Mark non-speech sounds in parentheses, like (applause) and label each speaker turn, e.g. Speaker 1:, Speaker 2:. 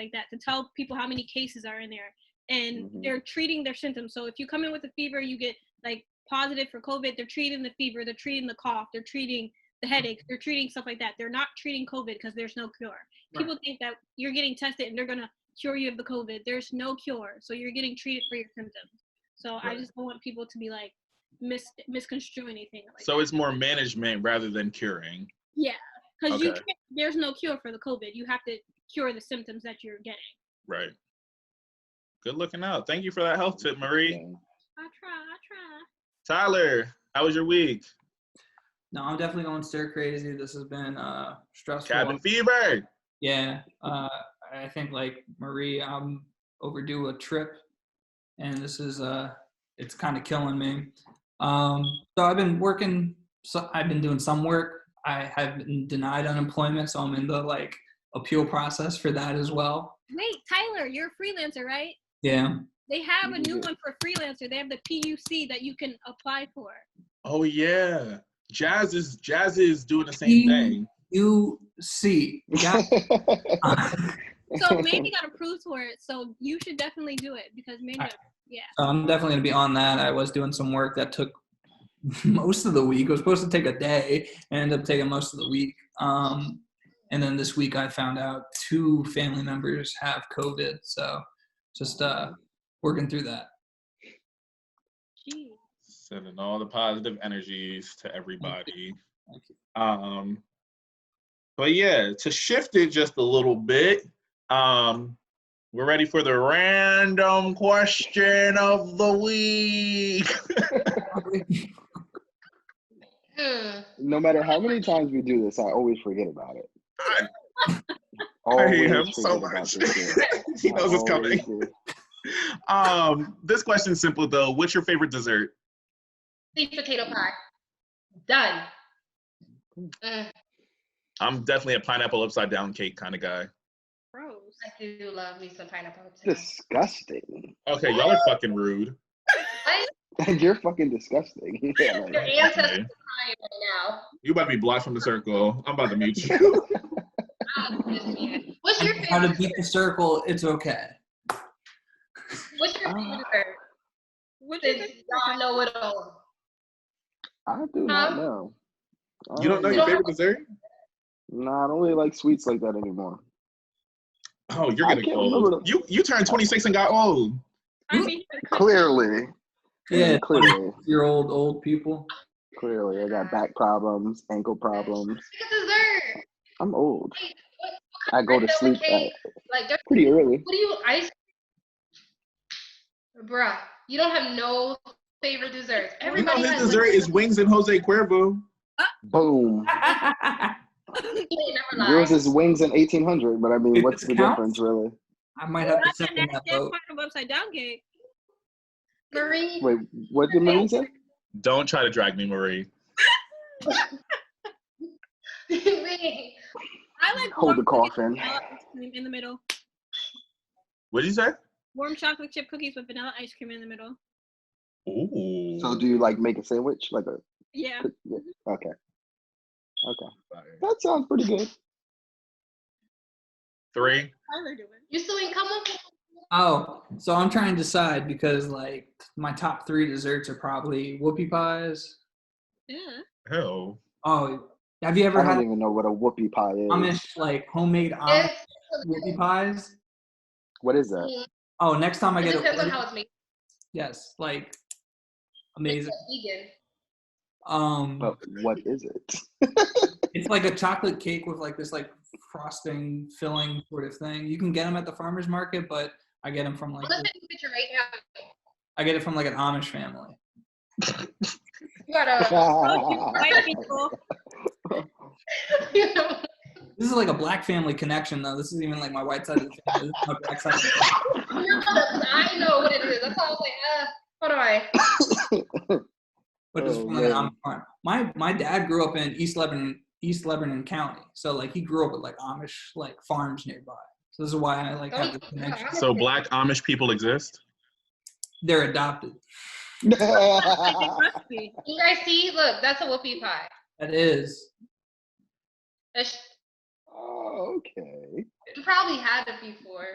Speaker 1: like that to tell people how many cases are in there and
Speaker 2: Mhm.
Speaker 1: they're treating their symptoms. So if you come in with a fever, you get like positive for COVID, they're treating the fever, they're treating the cough, they're treating the
Speaker 2: Mm-hmm.
Speaker 1: headache, they're treating stuff like that. They're not treating COVID because there's no cure. People think that you're getting tested and they're gonna cure you of the COVID. There's no cure, so you're getting treated for your symptoms. So I
Speaker 2: Right.
Speaker 1: just don't want people to be like mis misconstrue anything. Like
Speaker 2: So it's more management rather than curing.
Speaker 1: because you
Speaker 2: okay.
Speaker 1: can't, there's no cure for the COVID. You have to cure the symptoms that you're getting.
Speaker 2: Right. Good looking out. Thank you for that health tip, Marie.
Speaker 1: I try, I try.
Speaker 2: Tyler, how was your week?
Speaker 3: No, I'm definitely going stir crazy. This has been uh stressful.
Speaker 2: Cabin fever.
Speaker 3: Yeah. Uh I think like Marie, I'm overdue a trip and this is uh it's kind of killing me. Um so I've been working so I've been doing some work. I have been denied unemployment, so I'm in the like appeal process for that as well.
Speaker 1: Wait, Tyler, you're a freelancer, right?
Speaker 3: Yeah.
Speaker 1: They have a new
Speaker 2: Yeah.
Speaker 1: one for freelancer. They have the PUC that you can apply for.
Speaker 2: Oh yeah. Jazz is Jazz is doing the
Speaker 3: Mm-hmm.
Speaker 2: same thing.
Speaker 3: You see. Yeah.
Speaker 2: (laughs)
Speaker 3: (laughs)
Speaker 1: So
Speaker 4: (laughs)
Speaker 1: Mandy got approved for it. So you should definitely do it because Mandy.
Speaker 3: Alright. So I'm definitely gonna be on that. I was doing some work that took (laughs) most of the week. It was supposed to take a day, and ended up taking most of the week. Um, and then this week, I found out two family members have COVID. So just uh, working through that.
Speaker 1: Gee.
Speaker 2: Sending all the positive energies to everybody.
Speaker 3: Thank you.
Speaker 2: Um but yeah, to shift it just a little bit, um, we're ready for the random question of the week.
Speaker 5: Hmm.
Speaker 4: no matter how many times we do this, I always forget about it.
Speaker 2: I- (laughs)
Speaker 4: Always
Speaker 2: hate him so
Speaker 4: forget about
Speaker 2: much.
Speaker 4: this shit.
Speaker 2: (laughs) he knows it's
Speaker 4: I
Speaker 2: coming.
Speaker 4: always do.
Speaker 2: Um, this question's simple though. What's your favorite dessert?
Speaker 5: Sweet potato pie. Done. Mm,
Speaker 2: I'm definitely a pineapple upside down cake kind of guy.
Speaker 1: Gross.
Speaker 5: I do love me some pineapple upside
Speaker 4: Disgusting. (laughs)
Speaker 2: Okay, y'all are fucking rude.
Speaker 4: You're fucking disgusting. (laughs) Yeah,
Speaker 5: down.
Speaker 2: (laughs)
Speaker 5: Your
Speaker 4: like,
Speaker 5: ancestors are crying right now.
Speaker 2: You about to be blocked from the circle. I'm about to mute you.
Speaker 5: I'm just being- What's your
Speaker 3: How to
Speaker 5: favorite?
Speaker 3: beat the circle? It's okay.
Speaker 5: What's your favorite dessert?
Speaker 1: What is
Speaker 5: Since y'all know it all.
Speaker 4: I do not know. I
Speaker 2: You don't know your favorite dessert?
Speaker 4: Nah, I don't really like sweets like that anymore.
Speaker 2: Oh, you're
Speaker 4: I
Speaker 2: getting
Speaker 4: can't remember
Speaker 2: old.
Speaker 4: the-
Speaker 2: You you turned 26 and got old.
Speaker 1: I mean,
Speaker 4: Clearly.
Speaker 3: Yeah,
Speaker 4: Clearly.
Speaker 3: your old old people.
Speaker 4: Clearly. I got back problems, ankle problems.
Speaker 5: It's a dessert.
Speaker 4: I'm old.
Speaker 5: What-
Speaker 4: I go to
Speaker 5: Vanilla
Speaker 4: sleep at
Speaker 5: cake, Like, there's-
Speaker 4: pretty early.
Speaker 5: what do you ice? Bruh, you don't have no favorite desserts.
Speaker 2: You know
Speaker 5: Everybody
Speaker 2: his
Speaker 5: has
Speaker 2: dessert is wings and Jose Cuervo.
Speaker 4: Boom.
Speaker 3: I
Speaker 5: They never lie.
Speaker 4: Yours is wings in 1800, but I mean,
Speaker 3: It
Speaker 4: what's the
Speaker 3: counts?
Speaker 4: difference, really?
Speaker 3: might
Speaker 1: Well,
Speaker 3: (laughs) have to
Speaker 1: that's
Speaker 3: second that vote.
Speaker 1: part of upside down cake.
Speaker 5: Marie, (laughs)
Speaker 4: Wait, what did Marie say?
Speaker 2: Don't try to drag me, Marie.
Speaker 5: Marie,
Speaker 1: I like
Speaker 4: Hold the
Speaker 1: warm chocolate chip
Speaker 4: coffin.
Speaker 1: vanilla ice cream in the middle.
Speaker 2: What'd you say?
Speaker 1: Warm chocolate chip cookies with vanilla ice cream in the middle.
Speaker 2: Ooh.
Speaker 4: So, do you like make a sandwich? Like a
Speaker 1: Yeah.
Speaker 4: cook- yeah, Okay. Okay. That sounds pretty good.
Speaker 2: Three.
Speaker 1: Tyler doing.
Speaker 5: you still ain't come up with
Speaker 3: Oh, so I'm trying to decide because like my top three desserts are probably whoopie pies.
Speaker 4: (laughs)
Speaker 1: Yeah.
Speaker 2: Hell.
Speaker 3: Oh, have you ever
Speaker 4: I
Speaker 3: had
Speaker 4: don't even know what a whoopie pie is.
Speaker 3: Amish like homemade Amish
Speaker 5: this.
Speaker 3: whoopie pies?
Speaker 4: What is
Speaker 3: (laughs)
Speaker 4: that?
Speaker 3: Oh, next time I
Speaker 5: It
Speaker 3: get
Speaker 5: depends on
Speaker 3: a
Speaker 5: how it's made.
Speaker 3: yes, like
Speaker 5: It's
Speaker 3: amazing.
Speaker 5: vegan.
Speaker 3: Um,
Speaker 4: But what is it?
Speaker 3: it's like a chocolate cake with like this like frosting filling sort of thing. You can get them at the farmers market, but I get them from
Speaker 5: I'm
Speaker 3: like
Speaker 5: gonna send you a picture right now.
Speaker 3: I get it from like an Amish family.
Speaker 5: You
Speaker 4: (laughs)
Speaker 5: gotta.
Speaker 1: Oh, you white people.
Speaker 5: (laughs) you know,
Speaker 3: This is like a black family connection though. This is even like my white side of the family. This is my black side. Of the family.
Speaker 5: I know what it is. That's all I was like, uh, what do I?
Speaker 3: but just
Speaker 4: Oh,
Speaker 3: from like an
Speaker 4: man.
Speaker 3: Amish farm. My my dad grew up in East Lebanon, East Lebanon County, so like he grew up with like Amish like farms nearby. So this is why I
Speaker 5: Oh,
Speaker 3: like have the connection.
Speaker 2: So black Amish people exist?
Speaker 3: They're adopted.
Speaker 1: Like it must be.
Speaker 5: You guys see? Look, that's a whoopie pie.
Speaker 3: That is.
Speaker 5: That's,
Speaker 4: (laughs) Oh, okay.
Speaker 5: You probably had it before.